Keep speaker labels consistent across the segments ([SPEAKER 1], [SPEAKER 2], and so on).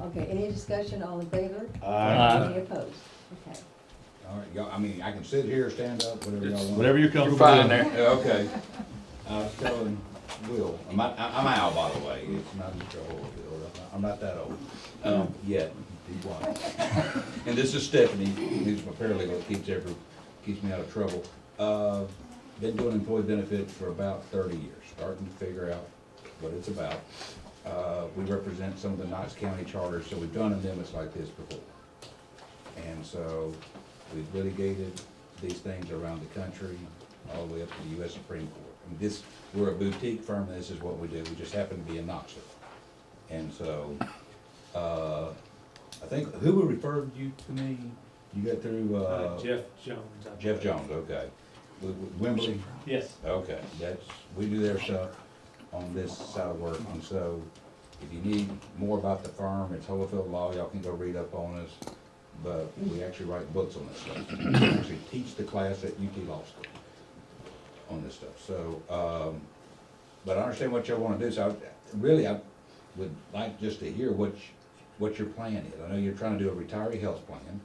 [SPEAKER 1] Okay, any discussion, all in favor?
[SPEAKER 2] Aye.
[SPEAKER 1] Any opposed? Okay.
[SPEAKER 3] All right, y'all, I mean, I can sit here, stand up, whatever y'all want.
[SPEAKER 2] Whatever you're comfortable with.
[SPEAKER 4] fine there.
[SPEAKER 3] Yeah, Okay. I was telling Will, I'm, not- I- I'm Al, by the way, it's not Mr. Old, Bill, I'm not- I'm not that old, um, yet, he was. And this is Stephanie, who's my paralegal, that keeps every, keeps me out of trouble. Uh, been doing employee benefits for about thirty years, starting to figure out what it's about. Uh, we represent some of the Knox County charters, so we've done amendments like this before. And so we've litigated these things around the country, all the way up to the US Supreme Court. And this, we're a boutique firm, this is what we do, we just happen to be in Knoxville. And so, uh, I think, who referred you to me? You got through,
[SPEAKER 5] Uh,
[SPEAKER 3] uh,
[SPEAKER 5] Jeff Jones. I
[SPEAKER 3] Jeff
[SPEAKER 5] believe.
[SPEAKER 3] Jones, okay. W- w- Wembley?
[SPEAKER 5] Yes.
[SPEAKER 3] Okay, that's, we do their stuff on this side of work, and so if you need more about the firm, it's Holyfield Law, y'all can go read up on us. But we actually write books on this stuff, we actually teach the class at UT Law School on this stuff, so, um, but I understand what y'all wanna do, so I, really, I would like just to hear what, you- what your plan is. I know you're trying to do a retiree health plan,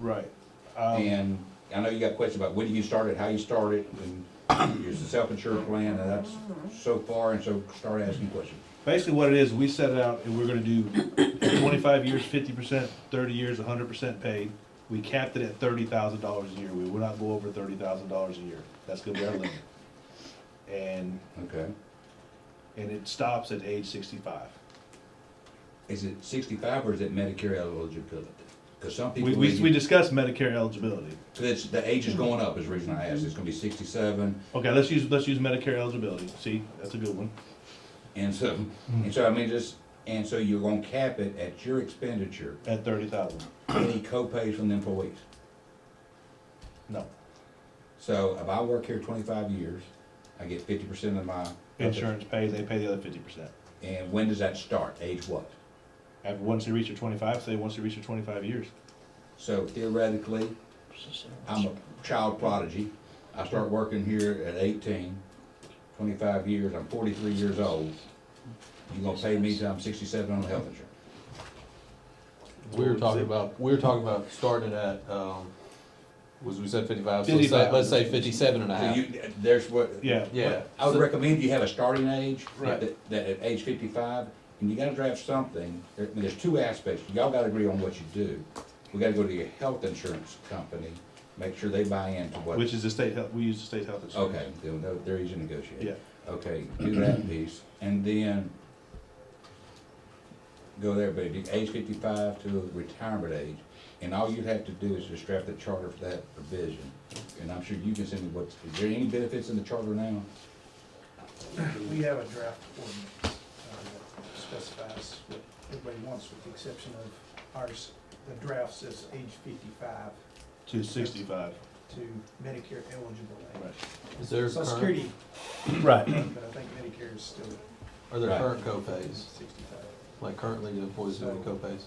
[SPEAKER 2] Right. Um,
[SPEAKER 3] and I know you got questions about when you started, how you started, and your self-insured plan, and that's so far, and so start asking questions.
[SPEAKER 2] Basically what it is, we set it out and we're gonna do twenty-five years, fifty percent, thirty years, hundred percent paid. We capped it at thirty thousand dollars a year. We will not go over thirty thousand dollars a year. That's gonna be our limit. And,
[SPEAKER 3] Okay.
[SPEAKER 2] and it stops at age sixty-five.
[SPEAKER 3] Is it sixty-five or is it Medicare eligibility? Because some people,
[SPEAKER 2] We, we, we
[SPEAKER 3] really-
[SPEAKER 2] discussed Medicare eligibility.
[SPEAKER 3] it's, the age is going up is the reason I asked. It's gonna be sixty-seven.
[SPEAKER 2] Okay, let's use, let's use Medicare eligibility. See, that's a good one.
[SPEAKER 3] And so, and so I mean, just, and so you're gonna cap it at your expenditure,
[SPEAKER 2] At thirty thousand.
[SPEAKER 3] any co-pays from the employees.
[SPEAKER 2] No.
[SPEAKER 3] So if I work here twenty-five years, I get fifty percent of my.
[SPEAKER 2] Insurance pays, they pay the other fifty percent.
[SPEAKER 3] And when does that start? Age what?
[SPEAKER 2] After, once they reach their twenty-five, say, once they reach their twenty-five years.
[SPEAKER 3] So theoretically, I'm a child prodigy. I start working here at 18, 25 years, I'm forty-three years old. You gonna pay me till I'm sixty-seven on health insurance?
[SPEAKER 4] We were talking about, we were talking about starting at, um, was we said fifty-five, so let's
[SPEAKER 2] 55.
[SPEAKER 4] say, let's say fifty-seven and a
[SPEAKER 3] So
[SPEAKER 4] half.
[SPEAKER 3] you, there's what.
[SPEAKER 2] Yeah.
[SPEAKER 4] Yeah.
[SPEAKER 3] I would recommend you have a starting age.
[SPEAKER 2] Right.
[SPEAKER 3] That, that at age fifty-five, and you gotta draft something, there, I mean, there's two aspects, y'all gotta agree on what you do. We gotta go to your health insurance company, make sure they buy into what.
[SPEAKER 2] Which is the state health, we use the state health insurance.
[SPEAKER 3] Okay, then they're- they're easy to negotiate.
[SPEAKER 2] Yeah,
[SPEAKER 3] Okay, do that piece, and then go there, but if you age fifty-five to retirement age, and all you have to do is just draft the charter for that provision. And I'm sure you can send me what, is there any benefits in the charter now?
[SPEAKER 6] We have a draft ordinance uh, that specifies what everybody wants, with the exception of ours. The draft says age fifty-five
[SPEAKER 2] to sixty-five,
[SPEAKER 6] to Medicare eligible age.
[SPEAKER 2] right.
[SPEAKER 4] Is there
[SPEAKER 6] Social
[SPEAKER 4] current,
[SPEAKER 6] Security,
[SPEAKER 2] Right.
[SPEAKER 6] but I think Medicare is still
[SPEAKER 4] are there
[SPEAKER 3] Right.
[SPEAKER 4] current copays?
[SPEAKER 6] sixty-five.
[SPEAKER 4] Like currently the employees doing copays?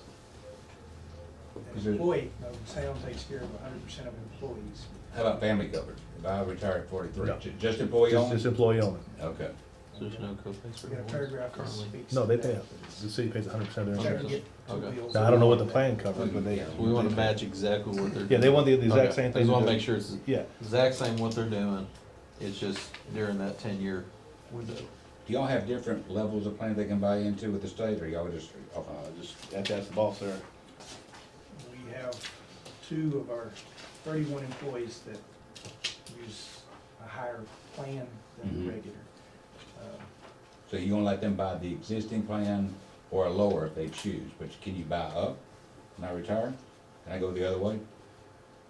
[SPEAKER 3] Is
[SPEAKER 6] An
[SPEAKER 3] it-
[SPEAKER 6] employee, no, town takes care of hundred percent of employees.
[SPEAKER 3] How about family coverage? If I retire at forty-three,
[SPEAKER 7] No.
[SPEAKER 3] ju- just employee
[SPEAKER 7] Just this
[SPEAKER 3] only?
[SPEAKER 7] employee only.
[SPEAKER 3] Okay,
[SPEAKER 4] There's no copays for
[SPEAKER 6] We got a
[SPEAKER 4] employees
[SPEAKER 6] paragraph that
[SPEAKER 4] currently?
[SPEAKER 6] speaks.
[SPEAKER 7] No, they
[SPEAKER 6] to
[SPEAKER 7] pay
[SPEAKER 6] that.
[SPEAKER 7] out. The city pays hundred percent of
[SPEAKER 6] Trying
[SPEAKER 7] their
[SPEAKER 6] to
[SPEAKER 7] insurance.
[SPEAKER 6] get two
[SPEAKER 4] Okay.
[SPEAKER 6] bills.
[SPEAKER 7] Now, I don't know what the plan covers, but they,
[SPEAKER 3] Yeah.
[SPEAKER 4] We wanna match exactly what they're.
[SPEAKER 7] yeah, they want the the
[SPEAKER 4] Okay.
[SPEAKER 7] exact same
[SPEAKER 4] Just
[SPEAKER 7] thing.
[SPEAKER 4] wanna
[SPEAKER 7] to
[SPEAKER 4] make
[SPEAKER 7] do.
[SPEAKER 4] sure it's
[SPEAKER 7] Yeah,
[SPEAKER 4] exact same what they're doing, it's just during that ten-year window.
[SPEAKER 3] do y'all have different levels of plan they can buy into with the state, or y'all just?
[SPEAKER 2] Uh, just, that's, that's the boss there.
[SPEAKER 6] We have two of our thirty-one employees that use a higher plan than
[SPEAKER 3] Mhm.
[SPEAKER 6] the regular. Um,
[SPEAKER 3] So you gonna let them buy the existing plan or lower if they choose, but can you buy up when I retire? Can I go the other way?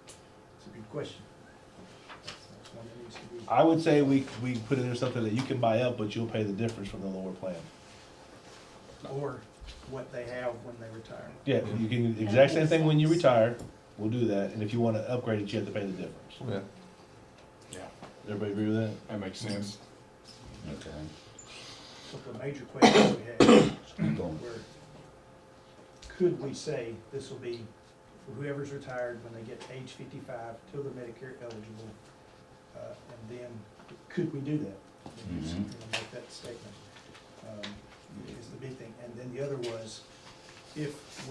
[SPEAKER 6] It's a good question. That's one that needs to be-
[SPEAKER 2] I would say we, we put in there something that you can buy up, but you'll pay the difference from the lower plan.
[SPEAKER 6] Or what they have when they retire.
[SPEAKER 2] Yeah, you can, the exact same thing when you retire, we'll do that, and if you wanna upgrade it, you have to pay the difference.
[SPEAKER 4] Yeah.
[SPEAKER 2] Everybody agree with that?
[SPEAKER 8] That makes sense.
[SPEAKER 3] Okay.
[SPEAKER 6] But the major questions we had
[SPEAKER 3] Keep going.
[SPEAKER 6] were, could we say this will be whoever's retired when they get age fifty-five till they're Medicare eligible? Uh, and then, could we do that? You know,
[SPEAKER 3] Mhm.
[SPEAKER 6] Make that statement, um, is the big thing. And then the other was, if